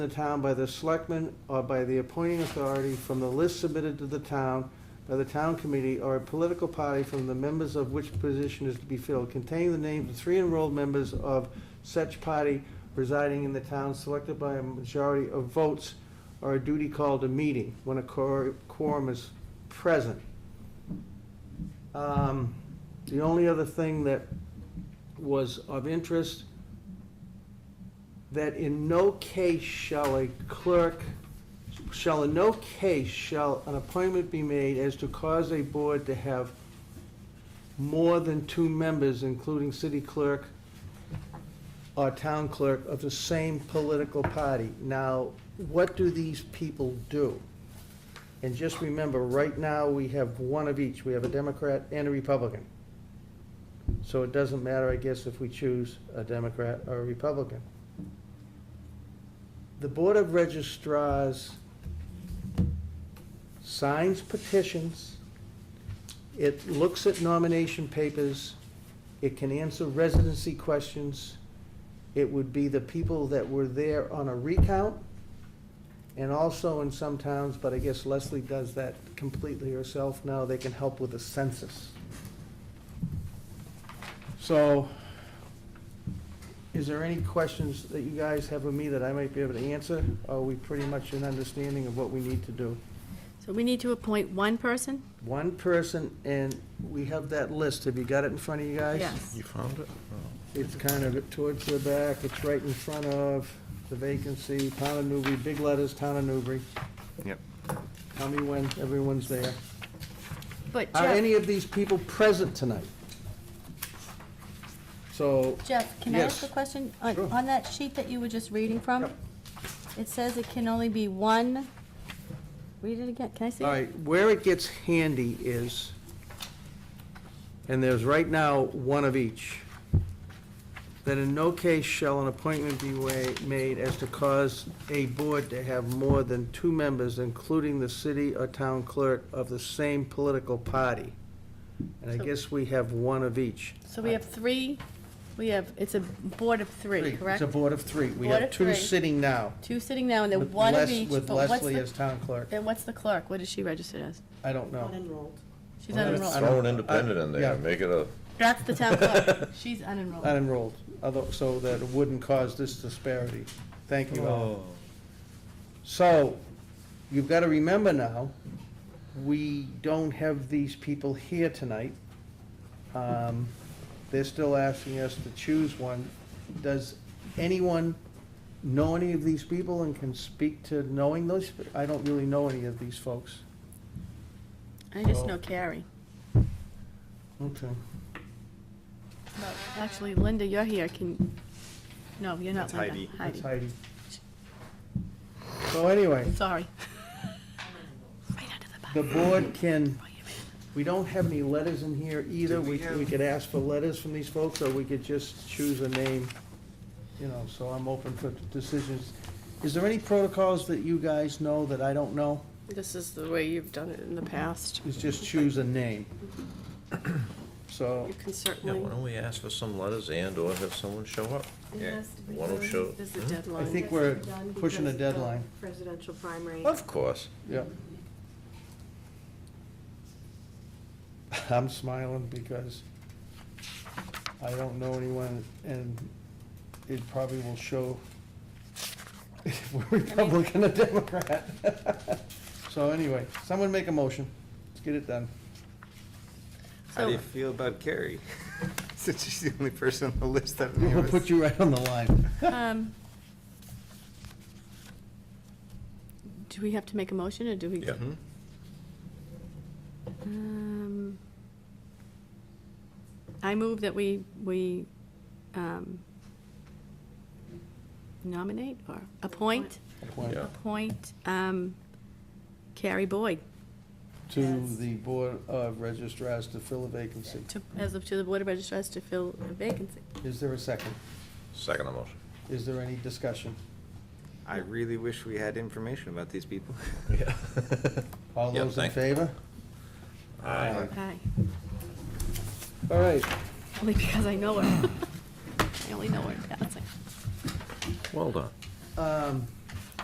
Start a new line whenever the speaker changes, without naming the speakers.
in the town by the selectmen or by the appointing authority from the list submitted to the town by the town committee or a political party from the members of which position is to be filled, containing the names of three enrolled members of such party residing in the town selected by a majority of votes or a duty called a meeting when a quor- quorum is present. Um, The only other thing that was of interest that in no case shall a clerk, shall in no case shall an appointment be made as to cause a board to have more than two members, including city clerk or town clerk of the same political party. Now, what do these people do? And just remember, right now, we have one of each. We have a Democrat and a Republican. So it doesn't matter, I guess, if we choose a Democrat or a Republican. The Board of Registrars signs petitions, it looks at nomination papers, it can answer residency questions. It would be the people that were there on a recount, and also in some towns, but I guess Leslie does that completely herself now, they can help with the census. So, is there any questions that you guys have of me that I might be able to answer? Or Are we pretty much in understanding of what we need to do?
So we need to appoint one person?
One person, and we have that list, have you got it in front of you Oh. guys?
Yes.
found it?
It's kind of towards the back, it's right in front of the vacancy, Town of Newbury, big letters, Town of Newbury.
Yep.
Tell me when everyone's there.
But
Are
Jeff,
Uh, any of these people present tonight? So,
Jeff, can I ask a
Yes.
question? On,
Sure.
on that sheet that you were just reading from?
Yep.
It says it can only be one, read it again, can I see
all
it?
right, where it gets handy is, and there's right now one of each, that in no case shall an appointment be wa- made as to cause a board to have more than two members, including the city or town clerk of the same political party. And I
So-
guess we have one of each.
so we have three, we have, it's a board of three, correct?
It's a board of three. We
Board
have
of
two
three.
sitting now.
Two sitting now, and then
with
one of
Les-
each.
With
but what's
Leslie
the-
as town clerk.
And what's the clerk? What is she registered as?
I don't know.
Unenrolled.
She's
Well,
unenrolled.
that's-
Throw an independent in
Yeah.
there, make it a,
That's the town clerk. She's unenrolled.
unenrolled, although, so that it wouldn't cause this disparity. Thank you
Oh.
all. So, you've got to remember now, we don't have these people here tonight. Um, They're still asking us to choose one. Does anyone know any of these people and can speak to knowing those? I don't really know any of these folks.
I just know Carrie.
Okay.
But Actually, Linda, you're here. Can, no, you're not
That's
Linda.
Heidi.
That's
Heidi.
Heidi. So anyway.
Sorry. Right under the bus.
The board can, we don't have any letters in here either. We, we could ask for letters from these folks, or we could just choose a name, you know, so I'm open for decisions. Is there any protocols that you guys know that I don't know?
This is the way you've done it in the past.
Is just choose a name. So,
You can
yeah, why
certainly.
don't we ask for some letters and/or have someone show up?
Yeah.
Why don't show-
There's a
Hmm?
deadline.
I think we're pushing a
Done because of the
deadline.
Presidential primary.
Of course.
yeah. I'm smiling because I don't know anyone, and it probably will show if we're Republican or Democrat. So anyway, someone make a motion. Let's get it done.
How do you
So-
feel about Carrie? Since she's the only person on the list that knew
We'll
us.
put you right on the line.
Um, Do we have to make a motion, or do we?
Yeah.
Mhm.
Um, I move that we, we um, nominate or appoint,
Appoint
Yeah.
appoint um, Carrie Boyd
To the Board of Registrars to fill a vacancy.
to, as of to the Board of Registrars to fill a vacancy.
Is there a second?
Second motion.
Is there any discussion?
I really wish we had information about these people.
Yeah.
All
Yeah,
those in
thank-
favor?
Aye.
Aye.
All right.
Only because I know her. I only know her passing.
Well done.
Um,